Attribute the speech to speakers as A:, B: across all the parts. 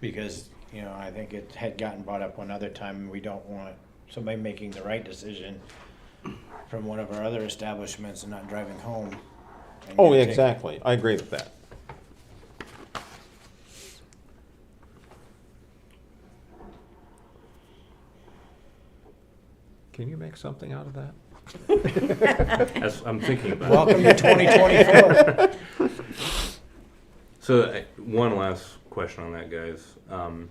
A: because, you know, I think it had gotten brought up one other time, and we don't want somebody making the right decision from one of our other establishments and not driving home. and
B: Oh,
A: get
B: yeah,
A: ticked.
B: exactly. I agree with that. Can you make something out of that?
C: As I'm thinking about it.
A: Welcome to twenty twenty-four.
C: So I- one last question on that, guys. Um,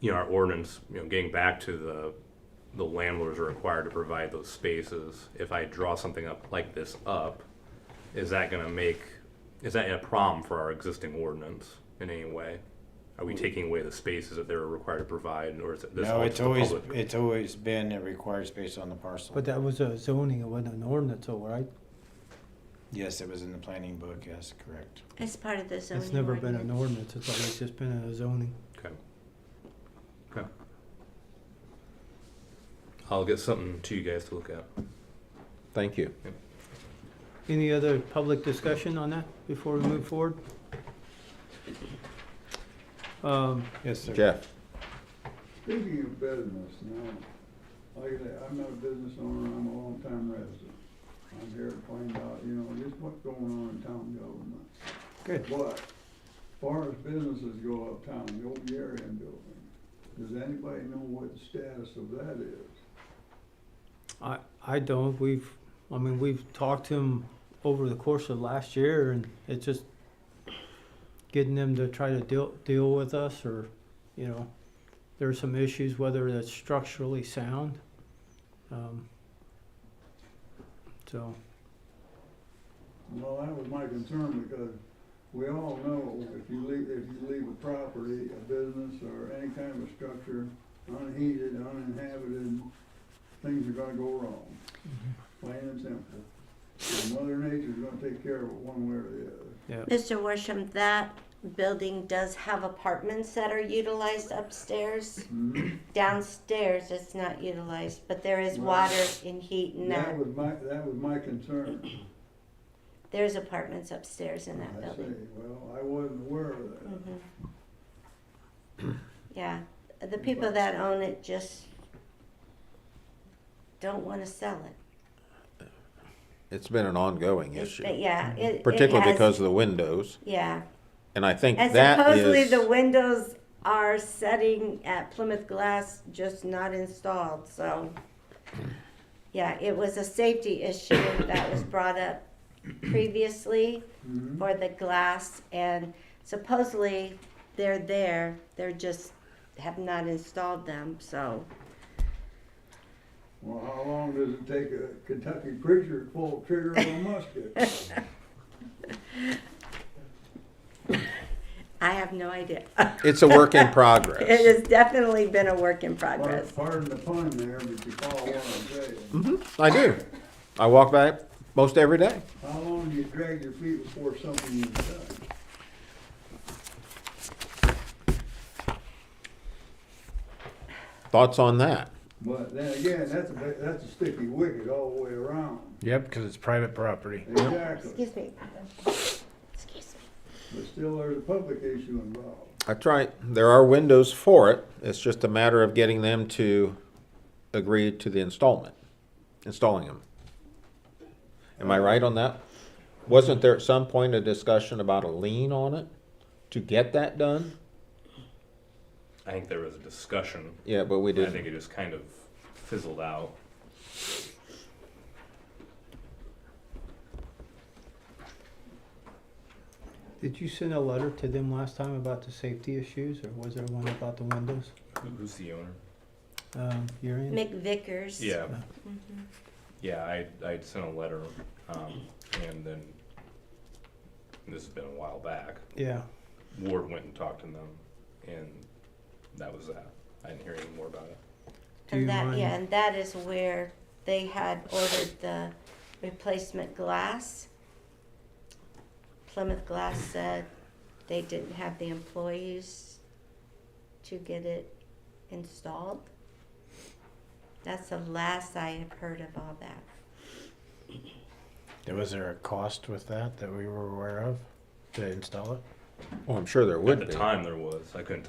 C: you know, our ordinance, you know, getting back to the the landlords are required to provide those spaces. If I draw something up like this up, is that going to make is that a problem for our existing ordinance in any way? Are we taking away the spaces that they're required to provide, or is it this
A: Mm. No,
C: holds
A: it's
C: the
A: always,
C: public?
A: it's always been a required space on the parcel.
D: But that was a zoning, it wasn't an ordinance, all right?
A: Yes, it was in the planning book, yes, correct.
E: It's part of the zoning.
D: It's never been an
E: ordinance.
D: ordinance, it's always just been a zoning.
C: okay. Okay. I'll get something to you guys to look at.
B: Thank you.
D: Any other public discussion on that before we move forward? Um,
A: Yes, sir.
B: Jeff,
F: Speaking of business, now, like I say, I'm not a business owner, I'm a long-time resident. I'm here to find out, you know, just what's going on in town government.
D: Good.
F: But, far as businesses go uptown, the old Darien building, does anybody know what the status of that is?
D: I, I don't, we've, I mean, we've talked to them over the course of last year and it's just getting them to try to deal, deal with us or, you know, there's some issues, whether that's structurally sound. Um, So,
F: Well, that was my concern, because we all know if you leave, if you leave a property, a business, or any kind of a structure unheated, uninhabited, things are gonna go wrong. Plain and simple. And Mother Nature's gonna take care of it one way or the other.
D: yeah,
E: Mr. Worsham, that building does have apartments that are utilized upstairs.
F: Mhm.
E: Downstairs, it's not utilized, but there is
F: Right.
E: water and heat in
F: That
E: that.
F: was my, that was my concern.
E: There's apartments upstairs in that
F: I say,
E: building.
F: well, I wasn't aware of that.
E: Mhm. Mm-hmm. Yeah, the people that own it just don't want to sell it.
B: it's been an ongoing
E: But
B: issue,
E: yeah, it- it
B: particularly
E: has-
B: because of the windows.
E: Yeah.
B: And I think
E: And
B: that
E: supposedly
B: is,
E: the windows are setting at Plymouth Glass, just not installed, so. Yeah, it was a safety issue that was brought up previously
F: Mhm.
E: for the glass and supposedly they're there, they're just have not installed them, so.
F: Well, how long does it take a Kentucky preacher to pull the trigger on a musket?
E: I have no idea.
B: it's a work in
E: It
B: progress.
E: has definitely been a work in
F: Pardon
E: progress.
F: pardon the pun there, but you follow what I'm saying.
E: Mm.
B: Mm-hmm. I do. I walk by it most every day.
F: How long do you drag your feet before something is done?
B: Thoughts on that?
F: But then again, that's a, bit- that's a sticky wicket all the way around.
A: Yep, because it's private property.
F: Exactly.
E: Excuse me. Excuse me.
F: But still, there's a public issue involved.
B: That's right. There are windows for it. It's just a matter of getting them to agree to the installment, installing them. Am I right on that? Wasn't there at some point a discussion about a lien on it to get that done?
C: I think there was a discussion
B: Yeah, but we
C: I think
B: didn't.
C: it just kind of fizzled out.
D: did you send a letter to them last time about the safety issues or was there one about the windows?
C: Who- Who's the owner?
D: Um, you're in?
E: McVickers.
C: Yeah, Mm-hmm.
E: Mhm.
C: yeah. I I sent a letter, um, and then this has been a while back.
D: Yeah,
C: Ward went and talked to them, and that was that. I didn't hear any more about it.
D: Do you
E: And that,
D: mind-
E: yeah, and that is where they had ordered the replacement glass. Plymouth Glass said they didn't have the employees to get it installed. That's the last I have heard of all that.
A: Was there a cost with that that we were aware of to install it?
B: Well, I'm sure there would
C: At
B: be.
C: the time, there was. I couldn't